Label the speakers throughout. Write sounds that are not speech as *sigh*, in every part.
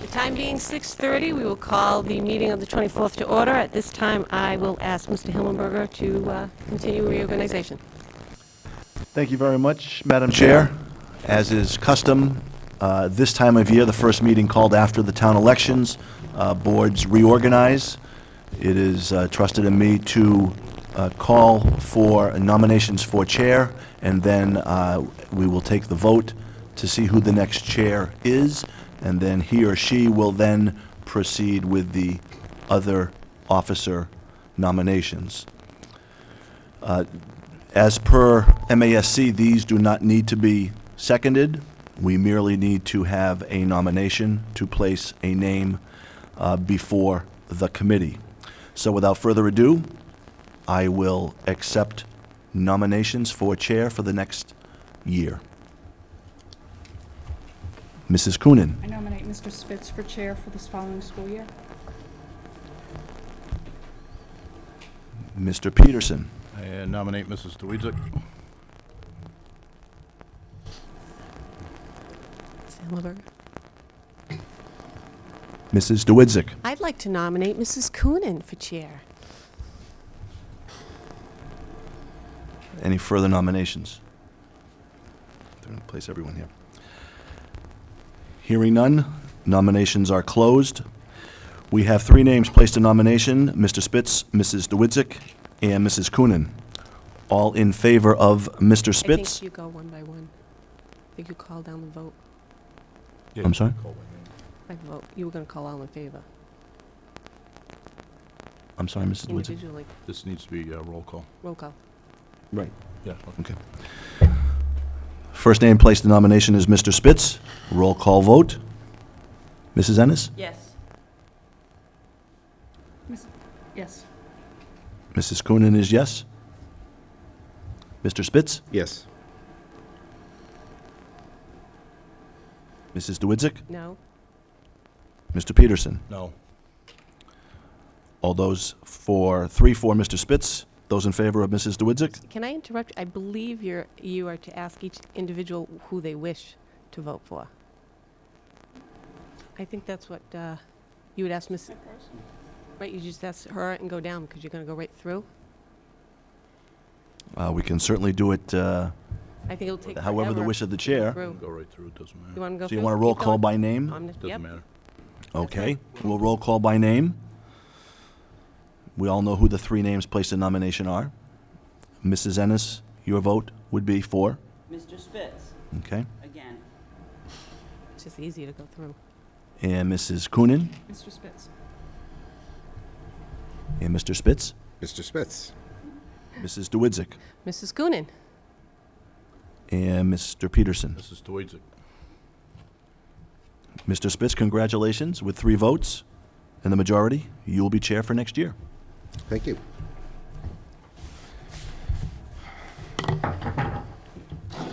Speaker 1: The time being 6:30, we will call the meeting of the 24th to order. At this time, I will ask Mr. Hillenberger to uh, continue reorganization.
Speaker 2: Thank you very much, Madam Chair. As is custom, uh, this time of year, the first meeting called after the town elections, uh, boards reorganize. It is uh, trusted in me to uh, call for nominations for chair, and then uh, we will take the vote to see who the next chair is, and then he or she will then proceed with the other officer nominations. As per MASC, these do not need to be seconded. We merely need to have a nomination to place a name uh, before the committee. So without further ado, I will accept nominations for chair for the next year. Mrs. Coonan,
Speaker 3: I nominate Mr. Spitz for chair for this following school year.
Speaker 2: Mr. Peterson,
Speaker 4: I uh, nominate Mrs. Dewitzak.
Speaker 1: Mr. Hillenberger?
Speaker 2: Mrs. DeWitzik,
Speaker 1: I'd like to nominate Mrs. Coonan for chair.
Speaker 2: any further nominations? They're going to place everyone here. Hearing none, nominations are closed. We have three names placed in nomination, Mr. Spitz, Mrs. DeWitzik, and Mrs. Coonan. All in favor of Mr.
Speaker 1: I
Speaker 2: Spitz?
Speaker 1: think you go one by one. I think you call down the vote
Speaker 2: I'm sorry?
Speaker 1: by vote. You were going to call all in favor
Speaker 2: I'm sorry, Mrs. DeWitzik?
Speaker 1: individually.
Speaker 4: This needs to be a roll call.
Speaker 1: Roll call.
Speaker 2: Right.
Speaker 4: Yeah.
Speaker 2: First name placed in nomination is Mr. Spitz. Roll call vote. Mrs. Ennis?
Speaker 5: Yes.
Speaker 3: Yes.
Speaker 2: Mrs. Coonan is yes. Mr. Spitz?
Speaker 6: Yes.
Speaker 2: Mrs. DeWitzik?
Speaker 1: No?
Speaker 2: Mr. Peterson?
Speaker 4: No.
Speaker 2: All those for, three for Mr. Spitz. Those in favor of Mrs. DeWitzik?
Speaker 1: Can I interrupt? I believe you're, you are to ask each individual who they wish to vote for. I think that's what uh, you would ask Miss. Right, you just ask her and go down because you're going to go right through.
Speaker 2: Uh, We can certainly do it uh,
Speaker 1: I think it'll take
Speaker 2: however the
Speaker 1: forever
Speaker 2: wish of the
Speaker 1: to go
Speaker 2: chair.
Speaker 1: through.
Speaker 4: Go right through, it doesn't
Speaker 1: You
Speaker 4: matter.
Speaker 1: want to go?
Speaker 2: So you
Speaker 1: first?
Speaker 2: want to roll
Speaker 1: Keep
Speaker 2: call
Speaker 1: going.
Speaker 2: by name?
Speaker 1: I'm- yep.
Speaker 4: Doesn't matter.
Speaker 2: Okay, we'll roll call by name. We all know who the three names placed in nomination are. Mrs. Ennis, your vote would be for,
Speaker 5: Mr. Spitz,
Speaker 2: okay?
Speaker 5: again.
Speaker 1: It's just easy to go through.
Speaker 2: And Mrs. Coonan,
Speaker 3: Mr. Spitz.
Speaker 2: and Mr. Spitz,
Speaker 6: Mr. Spitz.
Speaker 2: Mrs. DeWitzik,
Speaker 1: Mrs. Coonan,
Speaker 2: and Mr. Peterson.
Speaker 4: Mrs. Dewitzak.
Speaker 2: Mr. Spitz, congratulations, with three votes and the majority, you will be chair for next year.
Speaker 6: Thank you.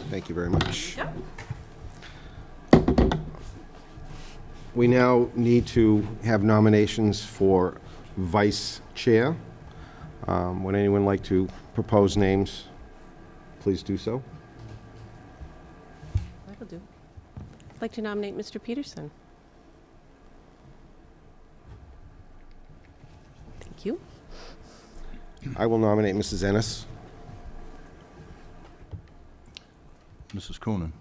Speaker 6: Thank you very much. We now need to have nominations for vice chair. Um, Would anyone like to propose names? Please do so.
Speaker 1: that'll do. I'd like to nominate Mr. Peterson. Thank you.
Speaker 6: I will nominate Mrs. Ennis.
Speaker 4: Mrs. Coonan.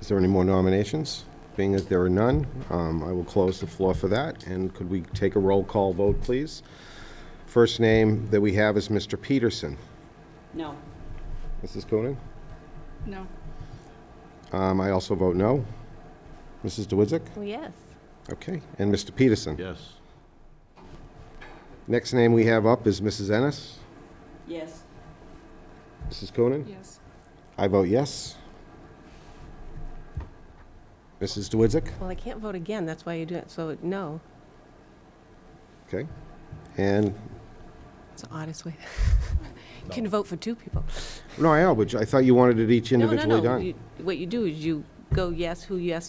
Speaker 6: Is there any more nominations? Being that there are none, um, I will close the floor for that. And could we take a roll call vote, please? First name that we have is Mr. Peterson.
Speaker 5: No.
Speaker 6: Mrs. Coonan?
Speaker 3: No.
Speaker 6: Um, I also vote no. Mrs. DeWitzik?
Speaker 1: Oh, yes.
Speaker 6: Okay. And Mr. Peterson?
Speaker 4: Yes.
Speaker 6: Next name we have up is Mrs. Ennis.
Speaker 5: Yes.
Speaker 6: Mrs. Coonan?
Speaker 3: Yes.
Speaker 6: I vote yes. Mrs. DeWitzik?
Speaker 1: Well, I can't vote again, that's why you do it, so no.
Speaker 6: Okay. And,
Speaker 1: It's the oddest way. *laughs* You can vote for two people.
Speaker 6: no, I know, but I thought you wanted it each
Speaker 1: No,
Speaker 6: individually
Speaker 1: No, no,
Speaker 6: done.
Speaker 1: you- What you do is you go yes, who yes,